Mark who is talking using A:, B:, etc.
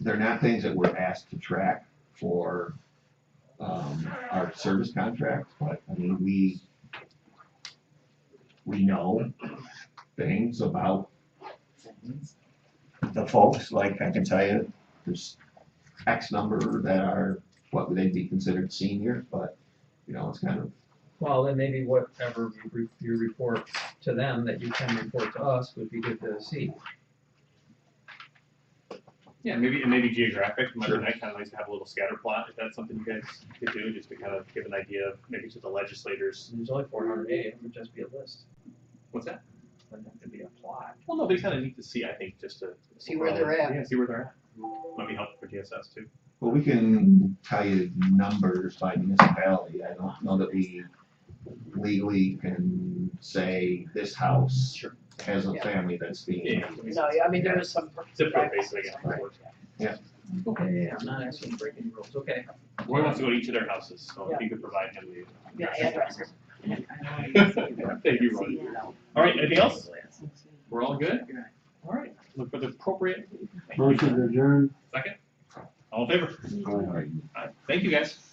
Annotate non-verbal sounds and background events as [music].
A: they're not things that we're asked to track for, um, our service contracts, but, I mean, we, we know things about the folks, like, I can tell you, there's X number that are, what, they'd be considered seniors, but, you know, it's kind of,
B: Well, then maybe whatever you re- you report to them that you can report to us would be good to see.
C: Yeah, maybe, and maybe geographic, might be
A: Sure.
C: nice, kind of nice to have a little scatter plot, if that's something you guys could do, just to kind of give an idea of, maybe to the legislators,
B: There's only four hundred eighty, it would just be a list,
C: what's that?
B: it wouldn't have to be a plot.
C: Well, no, but it's kind of neat to see, I think, just to.
D: See where they're at.
C: Yeah, see where they're at, might be helpful for DSS too.
A: well, we can tell you numbers by municipality, I don't know that we legally can say this house
C: Sure.
A: has a
D: Yeah.
A: family that's being,
C: Yeah.
D: No, yeah, I mean, there is some.
C: Zip code basis, I guess.
B: Okay, yeah, yeah, I'm not actually breaking rules, okay.
C: Roy wants to go to each of their houses, so if
D: Yeah.
C: you could provide him the.
D: Yeah, addresses.
C: [laughs] Thank you, Roy. All right, anything else? We're all good? All right, look for the appropriate.
E: Motion to adjourn.
C: Second? All in favor? All right, Thank you, guys.